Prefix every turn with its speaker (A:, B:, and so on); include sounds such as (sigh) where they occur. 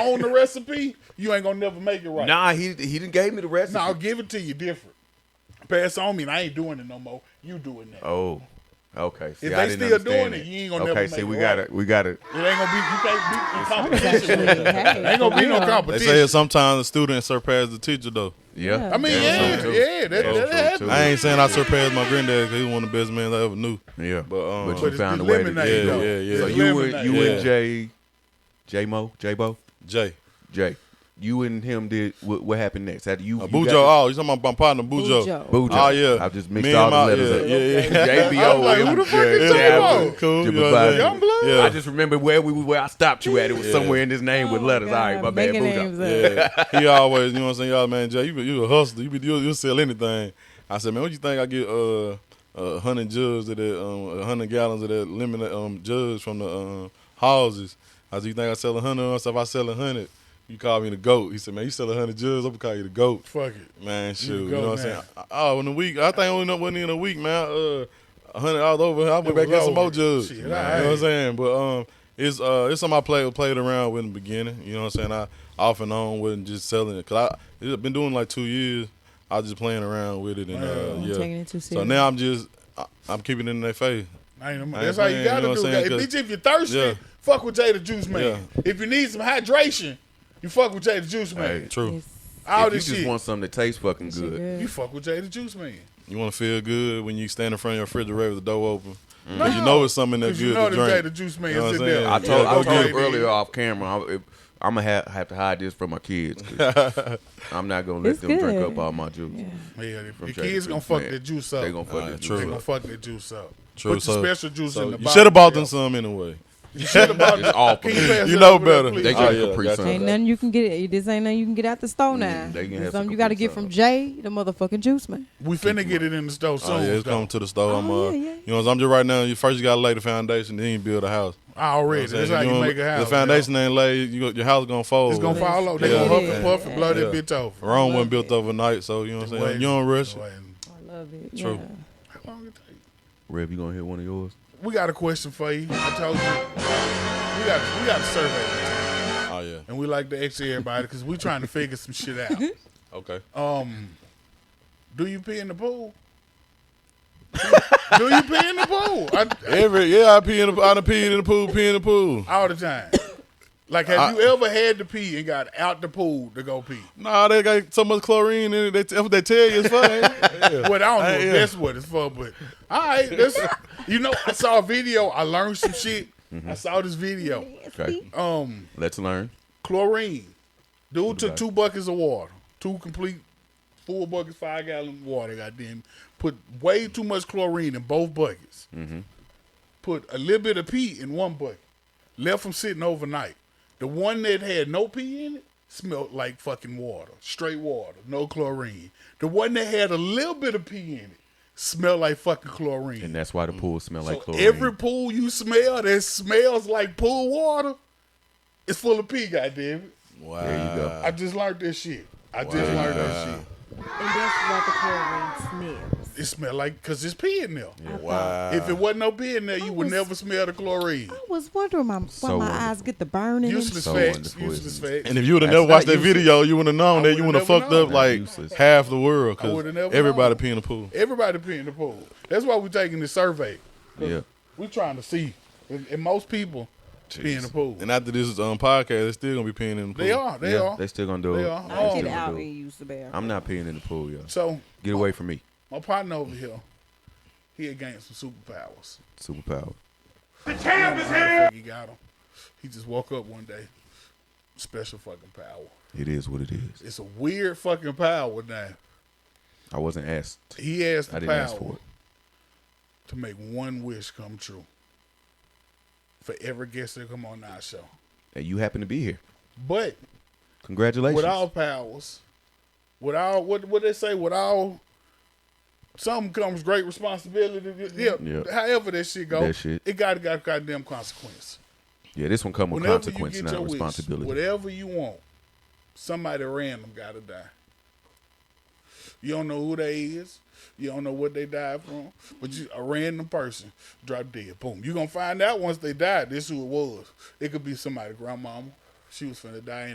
A: own the recipe, you ain't gonna never make it right.
B: Nah, he he didn't gave me the recipe.
A: No, I'll give it to you different. Pass on me, and I ain't doing it no more. You doing that?
B: Oh, okay. See,
A: If
B: I
A: they
B: didn't
A: still
B: understand
A: doing it,
B: that.
A: you ain't gonna
B: okay,
A: never
B: see,
A: make
B: we
A: it
B: got
A: right.
B: it. We got it.
A: It ain't gonna be. You can't be in competition. with
C: Actually,
A: them.
C: hey,
A: ain't gonna be no
C: for real.
D: They
A: competition.
D: say sometimes the student surpass the teacher though.
B: Yeah.
C: Yeah.
A: I mean, yeah,
B: That's true, too.
A: yeah, that,
B: That's
A: that,
B: true,
A: that
B: too.
A: happens.
D: I ain't saying I surpassed my granddad because he was one of the best men I ever knew.
B: Yeah,
D: But, um,
B: but
D: But
B: you
A: it's
B: found a way to
A: eliminated,
B: do
D: though.
B: it.
D: Yeah, yeah,
B: So
D: yeah.
B: you and you
D: Eliminated.
B: and Jay, J Mo, J Bo,
D: Jay.
B: Jay, you and him did what, what happened next? After you,
D: Uh,
B: you
D: Bujo.
B: got-
D: Oh, you talking about my partner Bujo.
C: Bujo.
B: Bujo.
D: Oh, yeah.
B: I just mixed
D: Me and
B: all the
D: my-
B: letters
D: yeah,
B: up.
D: yeah, yeah.
B: JBO.
A: I was like, who the fuck is
B: yeah,
A: J-Bo?
B: I was-
D: Cool,
B: Jibba
D: you know what I'm
B: Bobby.
D: saying?
A: Youngblood?
D: Yeah.
B: I just remember where we where I stopped you at. It was
D: Yeah.
B: somewhere in his name with
C: Oh,
B: letters.
C: God.
B: All right, my bad,
C: Making
B: Bujo.
C: names up.
D: Yeah, he always, you know what I'm saying, y'all man, Jay, you be- you a hustler, you be you will sell anything. I said, man, what you think I get uh a hundred jugs of that um a hundred gallons of that lemon um jugs from the um houses? I said, you think I sell a hundred? I said, if I sell a hundred, you call me the goat. He said, man, you sell a hundred jugs, I'm gonna call you the goat.
A: Fuck it.
D: Man, shoot,
A: the
D: you,
A: goat
D: know what I'm
A: now.
D: saying? I- Oh, in a week, I think I only wasn't in a week, man. Uh, a hundred all over. I
A: It
D: went back
A: was
D: in some more
A: over.
D: jugs.
A: Shit,
D: you know
A: alright.
D: what I'm saying? But um, it's uh, it's something I played played around with in the beginning. You know what I'm saying? I off and on wasn't just selling it because I it's been doing like two years. I was just playing around with it and uh,
C: Wow.
D: yeah.
C: Taking it too
D: so
C: serious.
D: now I'm just I, I'm keeping it in their face.
A: I ain't,
D: I
A: that's
D: ain't
A: how you
D: playing,
A: gotta
D: you know
A: do
D: what I'm
A: that.
D: saying,
A: Bitch,
D: cause-
A: if you're thirsty,
D: Yeah.
A: fuck with Jay the Juice Man.
D: Yeah.
A: If you need some hydration, you fuck with Jay the Juice Man.
B: Hey,
D: True.
C: Yes.
A: All
B: if you
A: this
B: just
A: shit,
B: want something that tastes fucking good,
A: you fuck with Jay the Juice Man.
D: You want to feel good when you stand in front of your refrigerator with the door open. 'Cause you know it's something
A: Mm.
D: that's
A: 'Cause you
D: good
A: know
D: to
A: that
D: drink.
A: Jay the Juice Man
D: You know
A: is
D: what
A: in there.
D: I'm saying?
B: I told
A: Yeah, go
B: I told
A: get
B: him
A: it.
B: earlier uh, off camera. I'm, I'm gonna have, have to hide this from my kids. (laughs) 'cause I'm not gonna let
C: It's
B: them drink
C: good.
B: up all my juice.
A: Yeah, the
B: Jay the
A: kids gonna
B: Juice
A: fuck
B: Man.
A: that juice up.
B: They gonna fuck
D: Ah,
B: this
D: true.
A: They
B: juice
A: gonna
B: up.
A: fuck that juice up.
D: True.
A: Put
D: so,
A: the special juice
D: so
A: in the
D: you should have bought them
A: some.
D: some anyway.
A: You should have bought
B: It's all for
A: Can (laughs)
B: me.
A: pass
D: You
A: that
D: know
A: over there,
D: better.
A: please?
B: They
D: Oh,
B: drink
D: yeah,
B: Capri
D: gotcha.
B: Sun.
C: Ain't nothing you can get. This ain't nothing you can get out the store now.
B: Mm, they can
C: This
B: have
C: something
B: some
C: you got to
B: complete
C: get from
B: salad.
C: Jay, the motherfucking juice man.
A: We finna get it in the store soon.
D: Oh, yeah, it's
A: though.
D: coming to the store. I'm,
C: Oh,
D: uh,
C: yeah, yeah.
D: You know, I'm just right now. You first you gotta lay the foundation, then you build a house.
A: Already,
D: You know what I'm
A: that's
D: saying?
A: how you
D: don't-
A: make a house.
D: The foundation ain't laid. You, go- your house gonna
A: yo.
D: fold.
A: It's gonna fall over. They gonna
D: Yeah.
A: huff and
C: Yeah.
A: puff and blow that
D: Yeah.
A: bitch over.
D: Rome wasn't built overnight, so you know what I'm saying. You don't rush. it.
C: I love it.
D: True.
C: Yeah.
A: How long it take?
B: Rev, you gonna hit one of yours?
A: We got a question for you. I told you. We got we got a survey,
D: Oh yeah.
A: and we like to ask everybody because we trying to figure some shit out.
D: Okay.
A: Um, do you pee in the pool? do you pee in the pool? I,
D: Every yeah, I pee in the I done peed in the pool, pee in the pool.
A: all the time. Like, have you ever had to pee and got out the pool to go pee?
D: Nah, they got so much chlorine in it. They, that's what they tell you
A: (laughs)
D: it's fun. yeah.
A: Well, I don't know if
D: yeah.
A: that's what it's for, but all right, that's you know, I saw a video, I learned some shit.
D: Mm-hmm.
A: I saw this video.
B: Okay,
A: Um,
B: let's learn.
A: chlorine. Dude took
B: about
A: two buckets of water, two complete full buckets, five gallon water. Goddamn, put way too much chlorine in both buckets.
B: Mm-hmm.
A: Put a little bit of pee in one bucket. Left them sitting overnight. The one that had no pee in it smelled like fucking water, straight water, no chlorine. The one that had a little bit of pee in it smelled like fucking chlorine.
B: And that's why the pool smell like
A: So
B: chlorine.
A: every pool you smell that smells like pool water is full of pee, goddamn it.
D: Wow.
B: there you go.
A: I just learned this shit. I just learned this shit.
C: And that's what the chlorine sniffs.
A: It smelled like because it's pee in there.
D: Wow.
A: If it wasn't no pee in there, you
C: I
A: would
C: was-
A: never smell the chlorine.
C: I was wondering my, why
B: So uh,
C: my
B: wonderful.
C: eyes get the burning.
A: Useless
B: So
A: facts.
B: wonderful,
A: Useless
B: isn't
A: facts.
D: And if you would have never
B: That's
D: watched
B: not
D: that video, you would have known
A: I
D: that you would
A: would've
D: have
A: never
D: fucked
A: known.
D: up like
B: That's useless.
D: half the world
A: I
D: because
A: would've never
D: everybody
A: known.
D: pee in the pool.
A: Everybody pee in the pool. That's why we're taking this survey.
B: yeah,
A: We're trying to see. And, and most people pee in the pool.
D: And after this um, podcast, they're still gonna be peeing in the pool.
A: They are. They
B: yeah,
A: are.
B: they still gonna do
A: They
B: it.
A: are.
B: They
A: I
B: still
A: get
B: gonna
C: out
B: do it.
C: and use the bathroom.
B: I'm not peeing in the pool, y'all.
A: so
B: Get away from me,
A: my partner over here, he had gained some superpowers.
B: superpower.
A: I think he got them. He just woke up one day. Special fucking power.
B: It is what it is.
A: It's a weird fucking power now.
B: I wasn't asked.
A: He asked the
B: I didn't
A: power
B: ask for it.
A: to make one wish come true for every guest that come on our show.
B: And you happen to be here.
A: But
B: Congratulations.
A: with all powers, with all what what they say, with all some comes great responsibility. Yeah,
B: Yeah.
A: however that shit go,
B: That shit.
A: it got got goddamn consequence.
B: yeah, this one come with
A: Whenever
B: consequence,
A: you get your
B: not
A: wish,
B: responsibility.
A: whatever you want, somebody random gotta die. You don't know who they is. You don't know what they died from, but you a random person drop dead. Boom. you gonna find out once they died. This who it was. It could be somebody grandmama. She was finna die